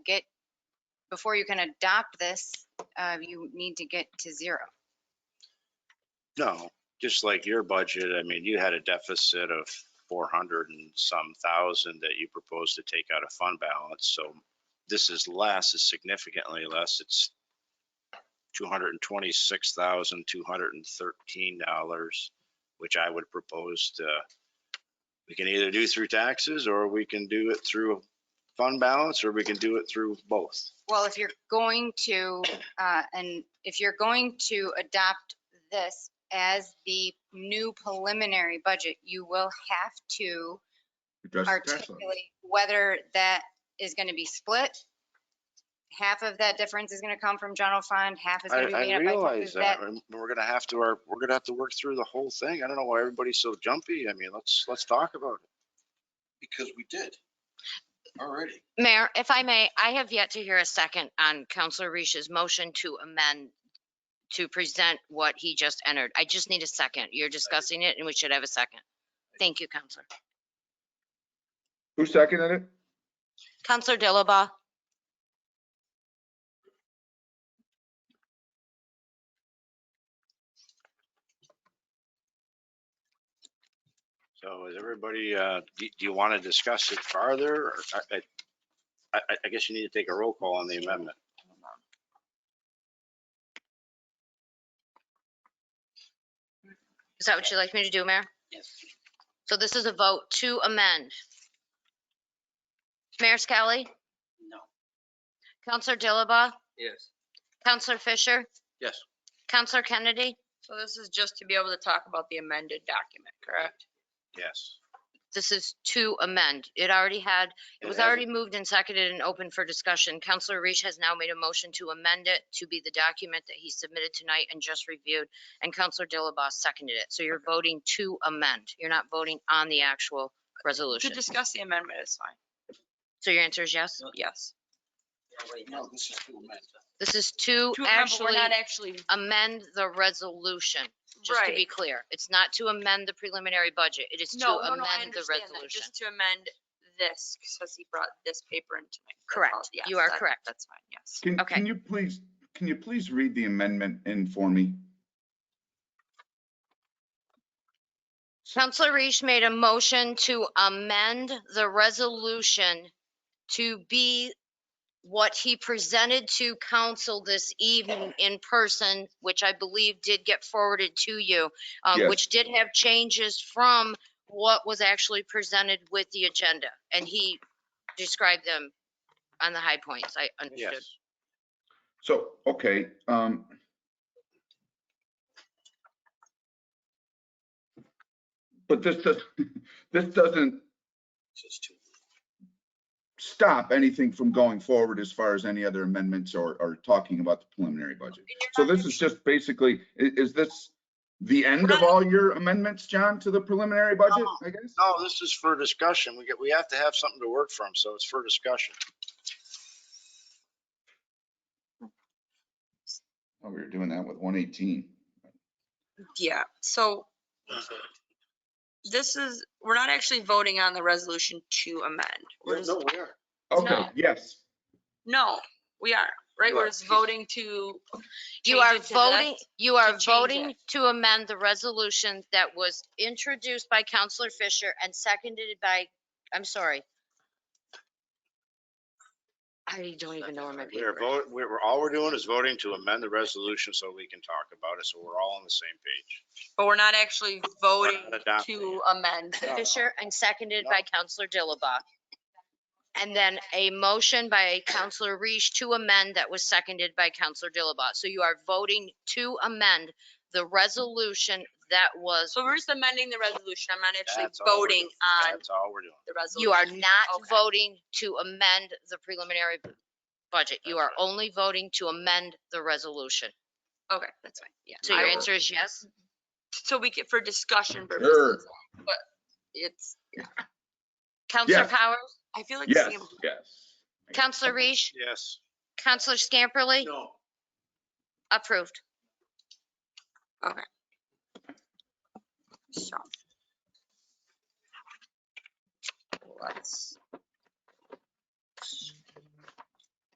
get, before you can adopt this, uh, you need to get to zero. No, just like your budget, I mean, you had a deficit of four hundred and some thousand that you proposed to take out of fund balance, so this is less, is significantly less, it's two hundred and twenty-six thousand, two hundred and thirteen dollars, which I would propose to, we can either do through taxes, or we can do it through fund balance, or we can do it through both. Well, if you're going to, uh, and if you're going to adopt this as the new preliminary budget, you will have to Address the tax levy. articulate whether that is going to be split. Half of that difference is going to come from general fund, half is I, going to be I made up by taxes. realize That, that, and we're gonna have to, our- we're gonna have to work through the whole thing. I don't know why everybody's so jumpy. I mean, let's, let's talk about it. because we did already. Mayor, if I may, I have yet to hear a second on Counselor Reese's motion to amend, to present what he just entered. I just need a second. You're discussing it and we should have a second. Thank you, Counselor. Who seconded it? Counselor Dilaba, So is everybody, uh, do do you want to discuss it farther? or I, I- I, I guess you need to take a roll call on the amendment. is that what you'd like me to do, Mayor? Yes. So this is a vote to amend. Mayor Skelly, No. Counselor Dilaba, Yes. Counselor Fisher, Yes. Counselor Kennedy. So this is just to be able to talk about the amended document, correct? Yes. This is to amend. It already had It was hasn't- already moved and seconded and open for discussion. Counselor Reach has now made a motion to amend it to be the document that he submitted tonight and just reviewed. And Counselor Dilaba seconded it. So you're voting to amend. You're not voting on the actual To resolution. discuss the amendment is fine, So your answer is yes? yes. No, this is too much. This is to To amend, but actually we're not actually, amend the resolution, just to be right. clear. It's not to amend the preliminary budget. It is to No, no, no, I amend the understand that, resolution. just to amend this, because he brought this paper in tonight. That's all. Correct. You Yes, are that- correct. That's fine, yes. Can, Okay. can you please, can you please read the amendment in for me? Counselor Reese made a motion to amend the resolution to be what he presented to council this evening in person, which I believe did get forwarded to you, um, Yes. which did have changes from what was actually presented with the agenda. And he described them on the high points. I understood. Yes. So, okay, um. But this does, this doesn't This is too. stop anything from going forward as far as any other amendments or, or talking about the preliminary budget. So this is just basically, i- is this the end of all your amendments, John, to the preliminary budget, I guess? No, this is for discussion. We get, we have to have something to work from, so it's for discussion. Oh, we were doing that with one eighteen. Yeah, so this is, we're not actually voting on the resolution to amend. We're just- No, we are. Okay, No. yes. No, we are, right? You We're are. just voting to. You change are it to the voting, next- you are change voting it. to amend the resolution that was introduced by Counselor Fisher and seconded by, I'm sorry. I don't even know where my We're paper is. vote, we're, all we're doing is voting to amend the resolution so we can talk about it, so we're all on the same page. But we're not actually voting adopting to amend. No, no. Fisher and seconded by Counselor Dilaba. And then a motion by Counselor Reish to amend that was seconded by Counselor Dilaba. So you are voting to amend the resolution that was, So we're just amending the resolution. I'm not actually That's all we're voting doing. on That's all we're doing. the resolution. you are not Okay. voting to amend the preliminary budget. You That's are only voting to amend the resolution. Okay, that's fine, yeah. So your I will- answer is yes? So we get for discussion Sure. purposes, but it's, Counselor Yes. Powers, I feel like. Yes, Sam- yes. Counselor Reish, Yes. Counselor Scamperly, No. approved. so. Let's